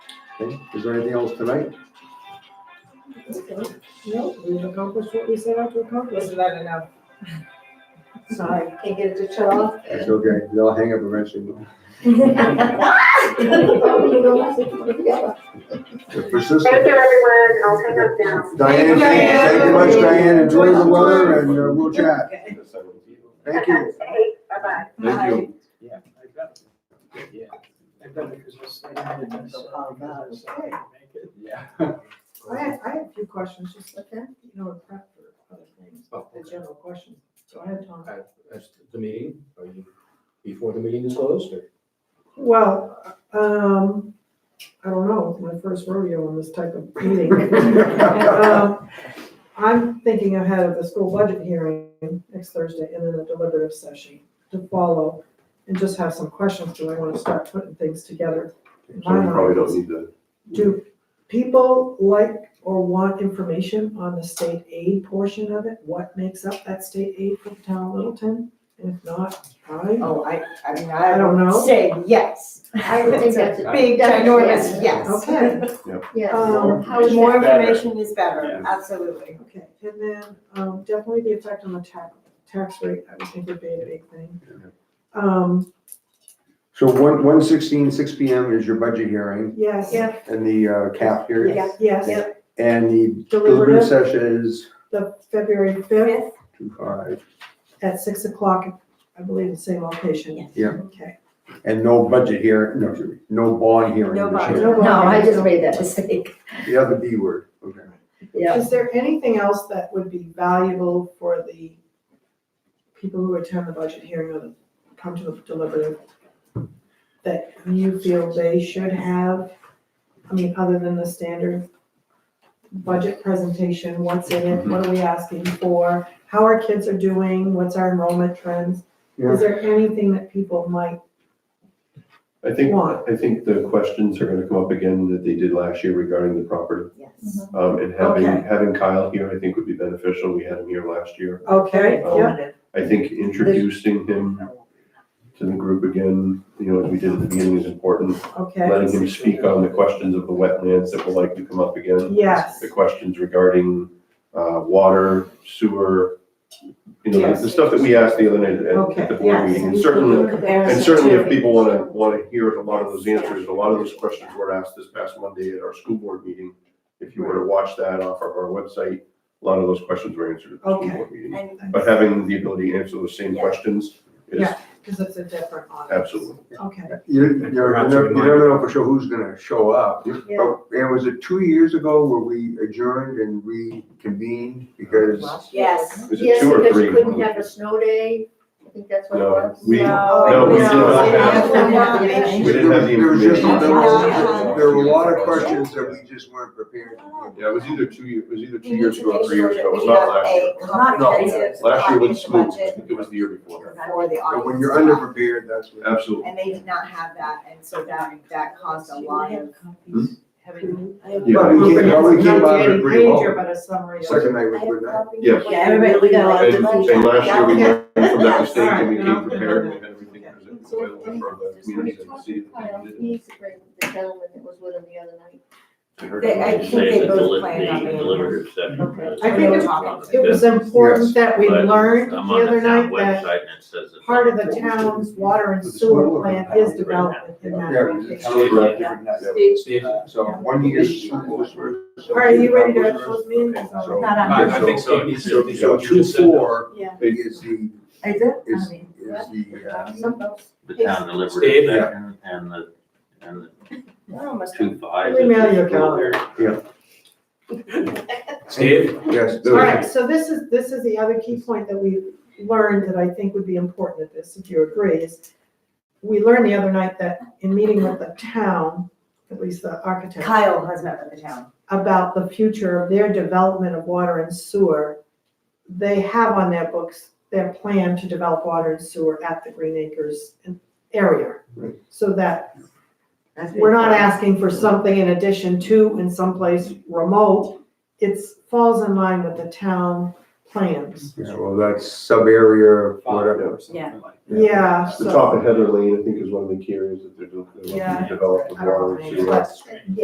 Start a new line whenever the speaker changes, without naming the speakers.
Okay, is there anything else tonight?
No, we've accomplished what we set out to accomplish.
Wasn't that enough?
Sorry, can't get it to shut off.
It's okay, they'll hang up eventually.
Thank
They're persistent.
Thank you, everyone. I'll hang up now.
Diane, thank thank you much, Diane, enjoy the weather and uh, we'll chat. Thank you.
Hey, Bye-bye.
Thank you.
Yeah. I've got it. Yeah. I've got it, 'cause it's- Yeah.
I have, I have a few questions, just like that, you know, a prep for other things, but the general questions. Go ahead, Tom.
Oh, That's the meeting, are you, before the meeting is closed, or?
Well, um, I don't know, it's my first rodeo in this type of meeting. Um, I'm thinking ahead of the school budget hearing next Thursday and then a deliberative session to follow and just have some questions, do I want to start putting things together?
So we probably don't need to,
Do people like or want information on the state aid portion of it? What makes up that state aid for the town of Littleton? And if not, I,
Oh, I, I mean,
I
I
don't know.
say yes.
I would think that's a
Big,
big, ginormous, yeah,
ginormous, yes.
Okay.
yes.
Um,
How is
More
that?
information is better,
Yeah.
absolutely.
Okay, and then, um, definitely the effect on the tax, tax rate, I would think would be a big thing. Um,
So one, one sixteen, six P M is your budget hearing
yes,
Yeah.
and the uh, cap hearing.
Yeah.
yes,
And the deliberative
deliberative,
session is
the February fifth
two five,
at six o'clock, I believe, the same location.
Yeah.
Okay.
and no budget hearing, no, excuse me, no bond hearing.
No
this
bond.
year.
No, I just made that mistake,
The other B word, okay.
yeah.
Is there anything else that would be valuable for the people who attend the budget hearing or come to the deliberative that you feel they should have? I mean, other than the standard budget presentation, what's in it, what are we asking for? How our kids are doing, what's our enrollment trends?
Yeah.
Is there anything that people might
I think,
Why?
I think the questions are gonna come up again that they did last year regarding the property.
Yes.
Um, and having,
Okay.
having Kyle here, I think would be beneficial. We had him here last year.
Okay, yeah,
I think introducing him to the group again, you know, as we did at the beginning is important.
okay,
Letting him speak on the questions of the wetlands that will likely come up again.
yes,
The questions regarding, uh, water, sewer, you know, the- the
Yes.
stuff that we asked the other night at-
Okay,
at the board meeting. And certainly, And certainly if people want to, want to hear a lot of those answers, a lot of those questions were asked this past Monday at our school board meeting. If you were to watch that off of our website, a lot of those questions were answered at the school
Okay.
board meeting.
And
But having the ability to answer those same
Yeah.
questions is
Yeah. because it's a different audience.
absolutely.
Okay.
You, you never,
Perhaps a
you never know for sure who's gonna show up. Oh, And was it two years ago where we adjourned and reconvened because?
Yes.
Is it
Yes,
two or
because you
three?
couldn't have a snow day, I think that's what it
No,
was.
we-
No,
no,
we did not
have-
We didn't have the
There was just-
information.
there
Yeah.
were- There were a lot of questions that we just weren't prepared. to
Yeah, it was either two, year- it was either two
We
years
need to
ago
make
or three years
sure
ago. It was
that
not
we
last year.
have a comprehensive,
Last year wasn't
comprehensive
smooth. I
budget
think it was the year before.
for the
do. But when you're
audience.
underprepared, that's what.
Absolutely.
And they did not have that, and so that, that caused a lot of.
Yeah.
But we came, but we came out of it
Not
pretty
Daily
well.
Ranger, but a summary.
Second night was good night.
Yes.
Yeah, everybody, we got a lot of
And,
different-
and last year,
Yeah.
we learned from that mistake and we
Alright, no.
came prepared and we had everything presented available for the community to see.
Kyle, He's the great- the gentleman that was with him the other night.
We heard
They- I think
about it.
they
Say the
both
deli-
planned on
the
being
deliberative session.
Okay.
is-
I think it's- It was important that we
But
learned the
I'm on
other
town
night
Website and
that
it says. it's-
part of the town's water and sewer plant is development in that
Yeah, it was a
location.
totally different night.
Steve?
So one year. All
All right, you ready to close meeting?
I I think so. It's- it's-
So
you
two
just said that.
four
Yeah.
is the,
Is it?
is, is the, uh,
The town deliberative
Steve?
session and the, and the two five.
Let me mail you a calendar.
Steve?
yes.
All right, so this is, this is the other key point that we learned that I think would be important at this, if you agree, is we learned the other night that in meeting with the town, at least the architect,
Kyle has met with the town.
about the future of their development of water and sewer, they have on their books their plan to develop water and sewer at the Green Acres area.
Right.
So that we're not asking for something in addition to in someplace remote. It's falls in line with the town plans.
Yeah, well, that's sub area, whatever.
Yeah.
Yeah,
The
so.
top of Heather Lane, I think, is one of the key areas that they're doing, they're looking
Yeah.
to develop with
I don't know
water
the
and
name,
sewer.
but-